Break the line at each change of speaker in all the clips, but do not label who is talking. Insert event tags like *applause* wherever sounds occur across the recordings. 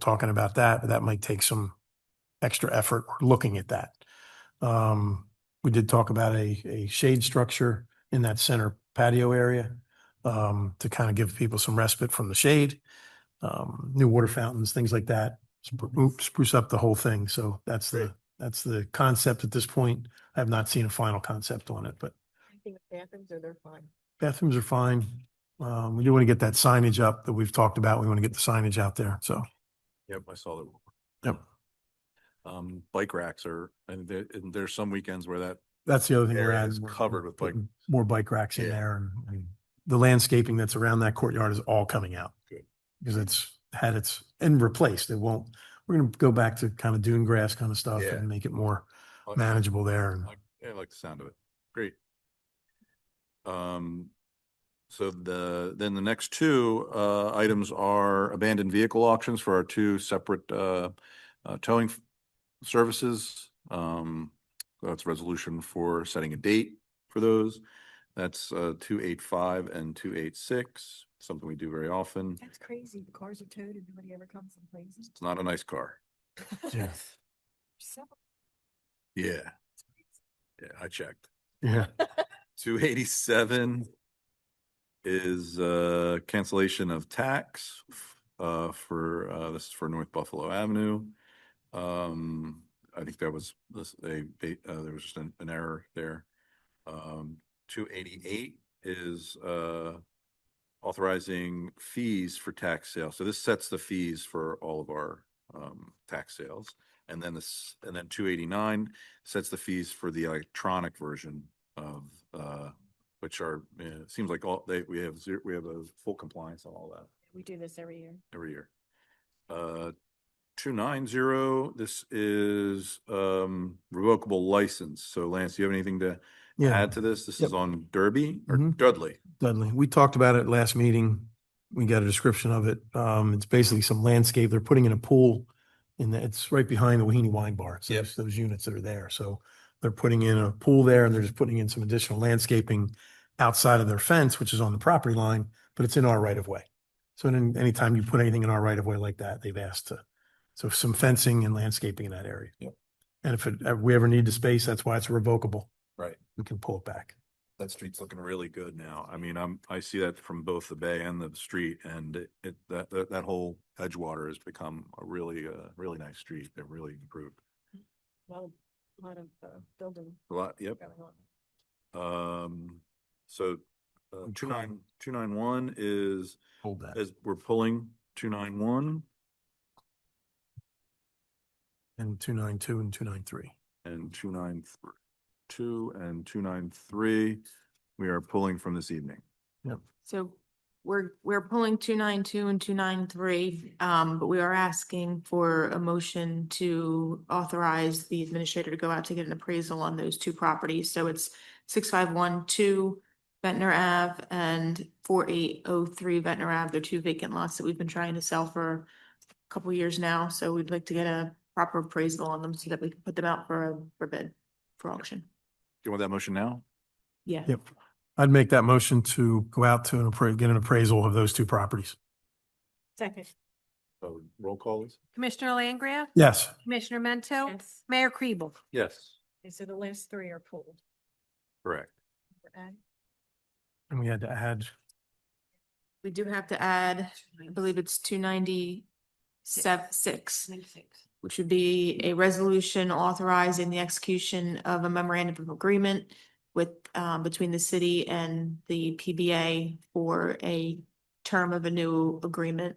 talking about that, but that might take some extra effort or looking at that. Um, we did talk about a, a shade structure in that center patio area um, to kind of give people some respite from the shade. Um, new water fountains, things like that, spruce, spruce up the whole thing. So that's the, that's the concept at this point. I have not seen a final concept on it, but
I think bathrooms are, they're fine.
bathrooms are fine. Um, we do want to get that signage up that we've talked about. We want to get the signage out there. So
Yep, I saw that.
Yep.
Um, bike racks are, and there, and there's some weekends where that
that's the other thing we're
area
adding.
is
We're-
covered with bike.
putting More bike racks in
Yeah.
there and, and the landscaping that's around that courtyard is all coming out.
Good.
Because it's had its, and replaced. It won't, we're going to go back to kind of dune grass kind of stuff
Yeah.
and make it more
I-
manageable there. and-
I uh, I like the sound of it. Great. Um, so the, then the next two, uh, items are abandoned vehicle auctions for our two separate, uh, uh, towing f- services. Um, that's resolution for setting a date for those. That's, uh, two eight five and two eight six, something we do very often.
That's crazy. The cars are towed and nobody ever comes and plays.
It's not a nice car.
*laughs* Yeah.
Yeah, yeah, I checked.
Yeah.
*laughs* Two eighty-seven is uh cancellation of tax f- uh for uh this is for North Buffalo Avenue. Um, I think that was this a they- uh there was just an an error there. Um, two eighty-eight is uh authorizing fees for tax sales. So this sets the fees for all of our um tax sales. And then this, and then two eighty-nine sets the fees for the electronic version of, uh, which are, uh, it seems like all, they, we have zero, we have a full compliance on all that
We do this every year.
every year. Uh, two nine zero, this is, um, revocable license. So Lance, do you have anything to
Yeah.
add to this? This
Yep.
is on Derby or
Mhm.
Dudley?
Dudley, we talked about it last meeting. We got a description of it. Um, it's basically some landscape. They're putting in a pool and it's right behind the Wahini Wine Bar. It's
Yep.
those, those units that are there. So they're putting in a pool there and they're just putting in some additional landscaping outside of their fence, which is on the property line, but it's in our right of way. So then anytime you put anything in our right of way like that, they've asked to, so some fencing and landscaping in that area.
Yep.
And if it, if we ever need the space, that's why it's revocable.
Right.
We can pull it back.
That street's looking really good now. I mean, I'm, I see that from both the bay and the street and it- it, that, that, that whole Edgewater has become a really, uh, really nice street. It really improved
Well, a lot of uh, building
a lot. Yep.
going on.
Um, so, uh,
I'm
two
trying.
nine, two nine one is,
Hold that.
is we're pulling two nine one
And two nine two and two nine three.
and two nine three, two and two nine three. We are pulling from this evening.
So we're, we're pulling two nine two and two nine three, um, but we are asking for a motion to authorize the administrator to go out to get an appraisal on those two properties. So it's six five one two Ventnor Ave and four eight oh three Ventnor Ave. They're two vacant lots that we've been trying to sell for a couple years now, so we'd like to get a proper appraisal on them so that we can put them out for a, for bid, for auction.
Do you want that motion now?
Yeah.
Yep. I'd make that motion to go out to an appra- get an appraisal of those two properties.
Second.
So roll call is?
Commissioner Langgraf?
Yes.
Commissioner Mento?
Yes.
Mayor Kribel?
Yes.
And so the last three are pulled.
Correct.
Right?
And we had to add,
We do have to add, I believe it's two ninety seven, six. which would be a resolution authorizing the execution of a memorandum of agreement with, um, between the city and the PBA for a term of a new agreement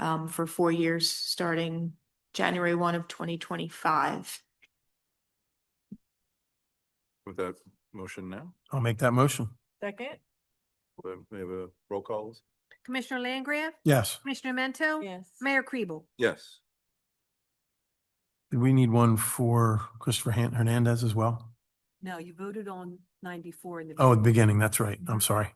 um, for four years, starting January one of twenty twenty-five.
With that motion now,
I'll make that motion.
Second?
we have- we have a roll call is?
Commissioner Langgraf?
Yes.
Commissioner Mento?
Yes.
Mayor Kribel?
Yes.
Did we need one for Christopher Han- Hernandez as well?
No, you voted on ninety-four in the.
Oh, at the beginning, that's right. I'm sorry.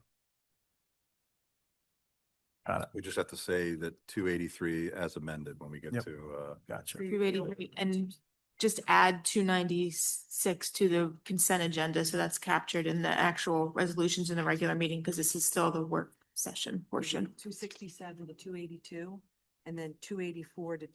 Got it.
We just have to say that two eighty-three as amended when we get
Yep.
to, uh,
Gotcha.
Two eighty-three, and just add two ninety-six to the consent agenda, so that's captured in the actual resolutions in the regular meeting, because this is still the work session portion.
Two sixty-seven to two eighty-two, and then two eighty-four to